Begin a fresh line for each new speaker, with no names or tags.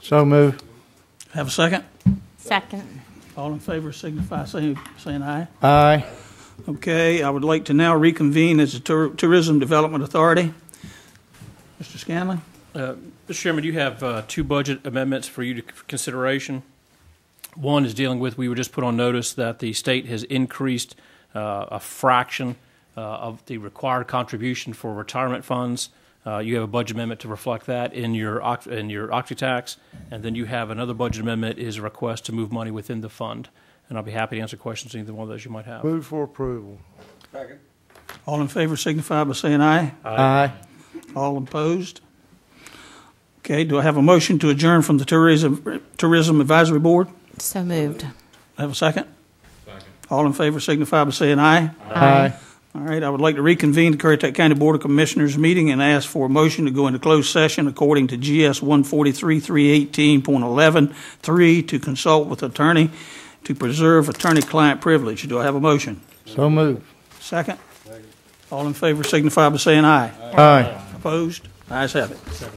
So move.
Have a second?
Second.
All in favor signify saying, saying aye.
Aye.
Okay, I would like to now reconvene as the Tour- Tourism Development Authority. Mr. Scanlon?
Uh, Mr. Chairman, you have uh, two budget amendments for you to for consideration. One is dealing with, we were just put on notice that the state has increased uh, a fraction uh, of the required contribution for retirement funds. Uh, You have a budget amendment to reflect that in your, oct- in your octi tax. And then you have another budget amendment is a request to move money within the fund. And I'll be happy to answer questions, either one of those you might have.
Move for approval.
All in favor signify by saying aye.
Aye.
All opposed? Okay, do I have a motion to adjourn from the Tourism, Tourism Advisory Board?
So moved.
Have a second? Second. All in favor signify by saying aye.
Aye.
All right, I would like to reconvene the Currituck County Board of Commissioners meeting and ask for a motion to go into closed session according to GS 143-318.11.3 to consult with attorney to preserve attorney-client privilege. Do I have a motion?
So move.
Second? All in favor signify by saying aye.
Aye.
Opposed? Ayes have it.